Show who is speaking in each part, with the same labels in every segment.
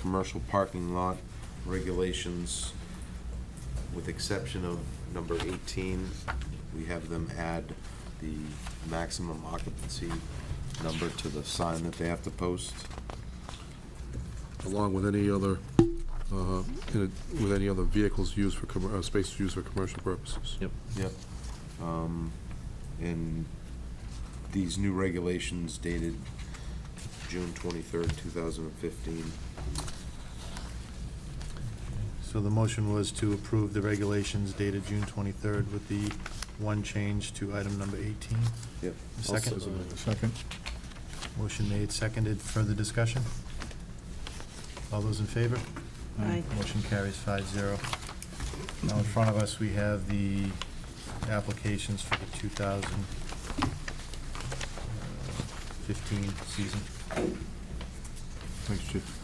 Speaker 1: commercial parking lot regulations, with exception of number 18, we have them add the maximum occupancy number to the sign that they have to post.
Speaker 2: along with any other, uh, in a- with any other vehicles used for, commer- uh, spaces used for commercial purposes.
Speaker 3: Yep.
Speaker 1: Yep. Um, And these new regulations dated June twenty-third, two thousand and fifteen.
Speaker 4: So the motion was to approve the regulations dated June 23rd with the one change to item number 18.
Speaker 1: Yep.
Speaker 4: A Second,
Speaker 5: Second.
Speaker 4: motion made, seconded, further discussion? All those in favor?
Speaker 5: Aye.
Speaker 4: Motion carries five zero. Now in front of us, we have the applications for the uh, 2015 season.
Speaker 2: Thanks, Chief.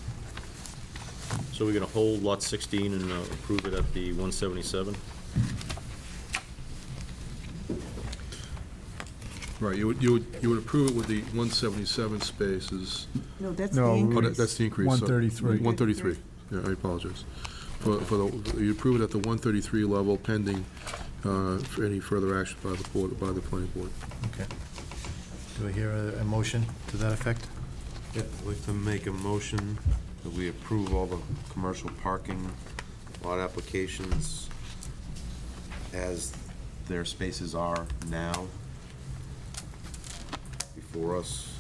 Speaker 3: So we're going to hold lot 16 and uh, approve it at the 177?
Speaker 2: Right, you would, you would, you would approve it with the 177 spaces.
Speaker 6: No, that's the
Speaker 5: No,
Speaker 2: Oh,
Speaker 6: increase.
Speaker 2: that- that's the increase. sorry.
Speaker 5: 133.
Speaker 2: 133, yeah, I apologize. For, for the, you approve it at the 133 level pending uh, for any further action by the board, by the planning board.
Speaker 4: Okay. Do I hear a a motion to that effect?
Speaker 1: Yep, I'd like to make a motion that we approve all the commercial parking lot applications as their spaces are now before us,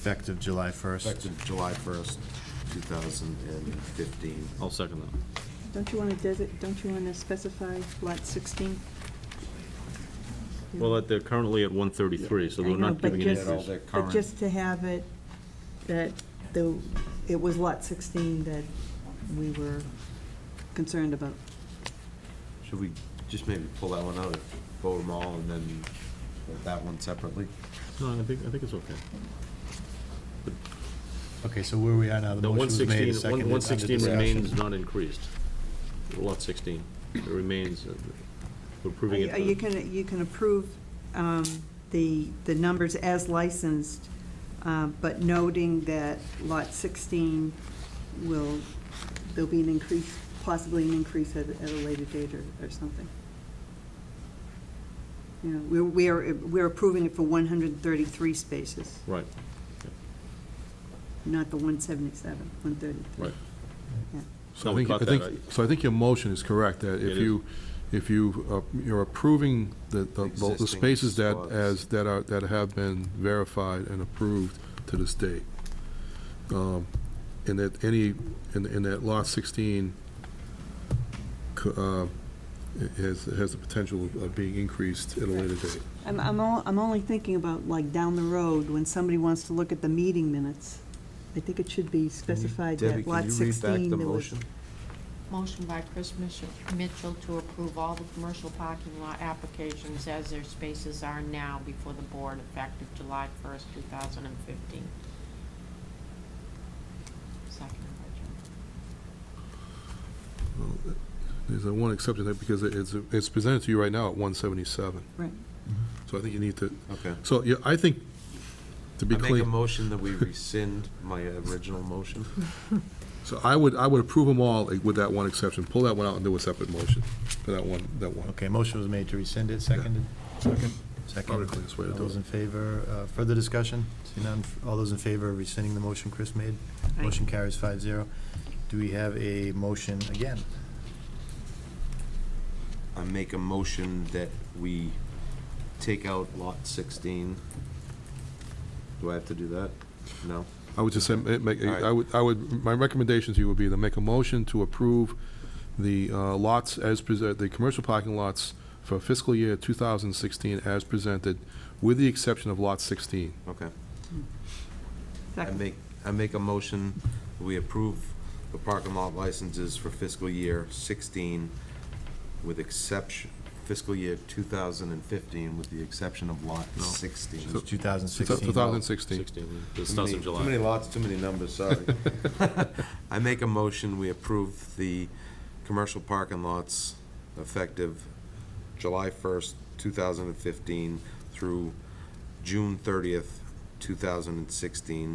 Speaker 4: Effective July 1st.
Speaker 1: effective July first, two thousand and fifteen.
Speaker 3: I'll second that.
Speaker 6: Don't you want to desi, don't you want to specify lot 16?
Speaker 3: Well, that- they're currently at 133, so
Speaker 6: I
Speaker 3: they're
Speaker 6: know,
Speaker 3: not
Speaker 6: but
Speaker 3: giving it
Speaker 6: just-
Speaker 3: any...
Speaker 1: Their
Speaker 6: But
Speaker 1: current-
Speaker 6: just to have it, that the, it was lot 16 that we were concerned about.
Speaker 1: Should we just maybe pull that one out, vote them all, and then vote that one separately?
Speaker 3: No, I think, I think it's okay.
Speaker 4: Okay, so where we are now, the
Speaker 3: The
Speaker 4: motion was
Speaker 3: 116,
Speaker 4: made, and seconded,
Speaker 3: 116
Speaker 4: under discussion.
Speaker 3: remains not increased. Lot 16, it remains, uh, we're approving
Speaker 6: Uh, You
Speaker 3: it.
Speaker 6: can, you can approve um, the, the numbers as licensed, uh, but noting that lot 16 will, there'll be an increase, possibly an increase at, at a later date or, or something. You know, we're, we are, we're approving it for 133 spaces,
Speaker 3: Right,
Speaker 6: not the 177, 133.
Speaker 3: right.
Speaker 6: Yeah.
Speaker 3: So
Speaker 2: I
Speaker 3: we
Speaker 2: think-
Speaker 3: caught
Speaker 2: I think-
Speaker 3: that, right?
Speaker 2: So I think your motion is correct, that
Speaker 3: It
Speaker 2: if
Speaker 3: is.
Speaker 2: you, if you, uh, you're approving the, the- the- the
Speaker 1: Existing
Speaker 2: spaces that,
Speaker 1: spots.
Speaker 2: as, that are, that have been verified and approved to this date. Um, And that any, and, and that lot sixteen co- uh, has, has the potential of being increased at a later date.
Speaker 6: I'm, I'm, all, I'm only thinking about like down the road, when somebody wants to look at the meeting minutes. I think it should be specified
Speaker 1: Debbie,
Speaker 6: that
Speaker 1: can
Speaker 6: lot
Speaker 1: you read back
Speaker 6: sixteen,
Speaker 1: the
Speaker 6: there was.
Speaker 1: motion?
Speaker 7: Motion by Chris Mitchell- Mitchell to approve all the commercial parking lot applications as their spaces are now before the board effective July 1st, 2015. Second by
Speaker 2: Uh, There's a one exception, there because it's, it's presented to you right now at one seventy-seven,
Speaker 6: Right,
Speaker 2: so I think you need to,
Speaker 1: Okay.
Speaker 2: so, yeah, I think, to be
Speaker 1: I make
Speaker 2: clear.
Speaker 1: a motion that we rescind my original motion.
Speaker 2: So I would, I would approve them all with that one exception. Pull that one out and do a separate motion for that one, that one.
Speaker 4: Okay, motion was made to rescind it, seconded?
Speaker 5: Second.
Speaker 4: Seconded.
Speaker 2: Probably the cleanest way to
Speaker 4: All
Speaker 2: do
Speaker 4: those
Speaker 2: it.
Speaker 4: in favor, uh, further discussion? See none, all those in favor of rescinding the motion Chris made?
Speaker 7: Aye.
Speaker 4: Motion carries five zero. Do we have a motion again?
Speaker 1: I make a motion that we take out lot sixteen. Do I have to do that? No?
Speaker 2: I would just say, ma- make,
Speaker 1: All right.
Speaker 2: I would, I would, my recommendation to you would be to make a motion to approve the uh, lots as presented, the commercial parking lots for fiscal year 2016 as presented, with the exception of lot 16.
Speaker 1: Okay. I
Speaker 6: second,
Speaker 1: make, I make a motion, that we approve the parking lot licenses for fiscal year sixteen with exception, fiscal year two thousand and fifteen with the exception of lot
Speaker 3: No.
Speaker 1: sixteen.
Speaker 4: It's 2016.
Speaker 2: 2016.
Speaker 3: 16, it
Speaker 1: Too
Speaker 3: starts in
Speaker 1: many- Too many
Speaker 3: July.
Speaker 1: lots, too many numbers, sorry. I make a motion, we approve the commercial parking lots effective July 1st, 2015 through June 30th, 2016,